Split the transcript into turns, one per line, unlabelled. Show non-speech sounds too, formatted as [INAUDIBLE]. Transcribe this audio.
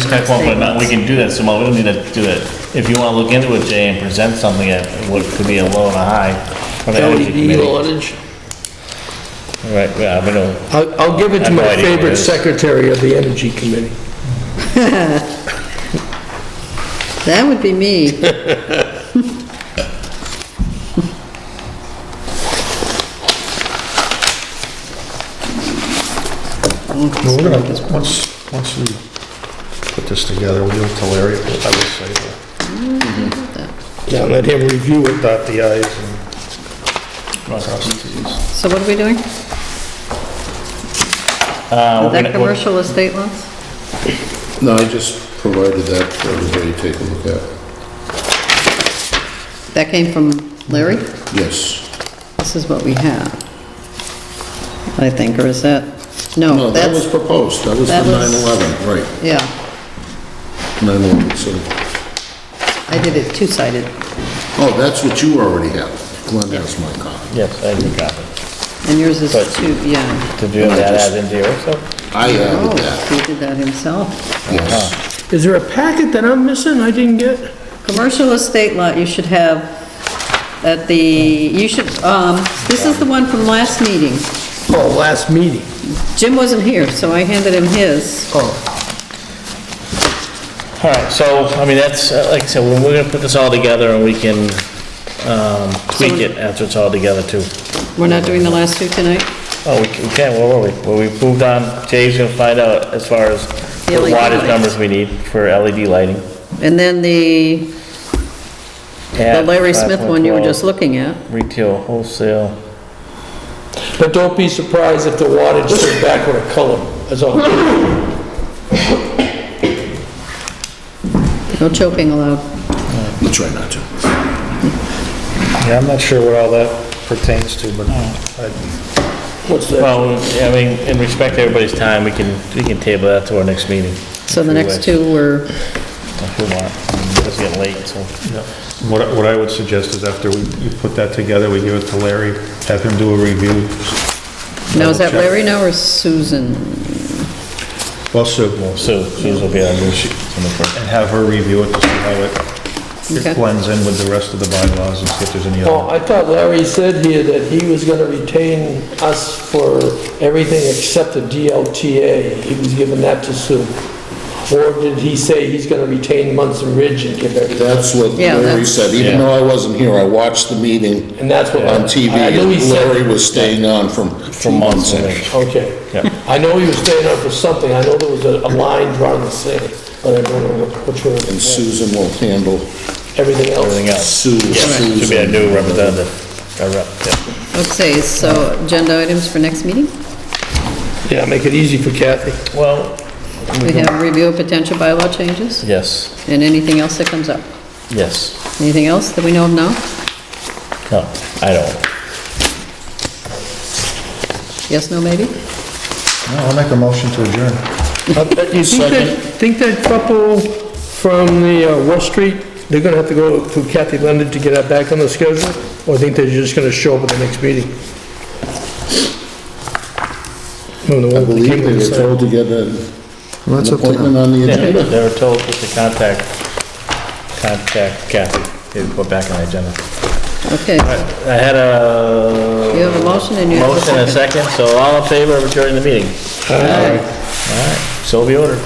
check one, but not, we can do that some more, we don't need to do it. If you wanna look into it, Jay, and present something at what could be a low and a high for the energy
LED
committee.
wattage.
Right, yeah, I mean, oh,
I'll, I'll give it
I
to
have no
my
idea what it
favorite
is.
secretary of the Energy Committee.
That would
[LAUGHS]
be me.
Well, we're gonna, once, once we put this together, we'll give it to Larry, I would say, uh,
Now, let him review it.
dot the i's and cross the t's.
So what are we doing?
uh, we're
Is that
gonna- we're-
commercial estate lots?
No, I just provided that for everybody to take a look at.
That came from Larry?
Yes.
This is what we have. I think, or is that,
No,
no,
that was
that's,
proposed, that was
that
the
was-
9/11, right,
yeah,
9/11, so,
I did it two-sided.
oh, that's what you already have. Glenn has my copy.
Yes, I do copy.
And yours is
But-
two, yeah.
Did you have that add into yours though?
I added
Oh,
that,
he did that himself.
yes.
Is there a packet that I'm missing I didn't get?
Commercial estate lot, you should have at the, you should, um, this is the one from last meeting.
Oh, last meeting.
Jim wasn't here, so I handed him his.
Oh,
All right, so, I mean, that's, uh, like I said, we're we're gonna put this all together and we can um, tweak it after it's all together too.
We're not doing the last two tonight?
Oh, we can- we can, where were we? Well, we moved on, Jay's gonna find out as far as
The E
what
LED
wattage
lighting.
numbers we need for LED lighting.
And then the the
At
Larry Smith one you were just
5.12,
looking at.
Retail, wholesale.
but don't be surprised if the wattage goes back with a color, that's all.
No choking allowed.
We'll try not to.
Yeah, I'm not sure what all that pertains to, but I,
What's that?
Well, I mean, in respect to everybody's time, we can, we can table that to our next meeting.
So
If
the
we
next
wish,
two were,
If we want. It's getting late, so.
what, I- what I would suggest is after we, you put that together, we give it to Larry, have him do a review.
now is that
Double check.
Larry now or Susan?
Well, Sue,
Sue, Sue's will be on the first.
and have her review it to see how it
Okay.
it blends in with the rest of the bylaws and see if there's any
Oh,
other.
I thought Larry said here that he was gonna retain us for everything except the DLTA. He was giving that to Sue. Or did he say he's gonna retain Munson Ridge and give everything?
That's what
Yeah,
Larry
that's-
said, even though I wasn't here, I watched the meeting
And that's what.
on TV,
I know he
and
said-
Larry was staying on from two months, I think.
Okay.
Yeah.
I know he was staying up for something. I know there was a a line drawn in the sand, but I don't know what- which one. it
and
was.
Susan will handle
Everything else.
Everything else.
Sue.
Yeah, should be a new representative, a rep, yeah.
Okay, so agenda items for next meeting?
Yeah, make it easy for Kathy.
Well,
We have review of potential bylaw changes
yes,
and anything else that comes up.
yes,
Anything else that we know of now?
no, I don't.
Yes, no, maybe?
I'll make a motion to adjourn.
You think that, think that couple from the uh, West Street, they're gonna have to go through Kathy Leonard to get that back on the schedule? Or think they're just gonna show up at the next meeting?
I
No, the one that
believe
came
they were
inside.
told to get a-
Well,
an
that's up to them.
appointment on the
Yeah,
agenda.
they were told to contact, contact Kathy, they put back on the agenda.
Okay,
I had a.
You have a motion and you have a
Motion and a second, so all in favor of adjourning the meeting? All right, so be ordered.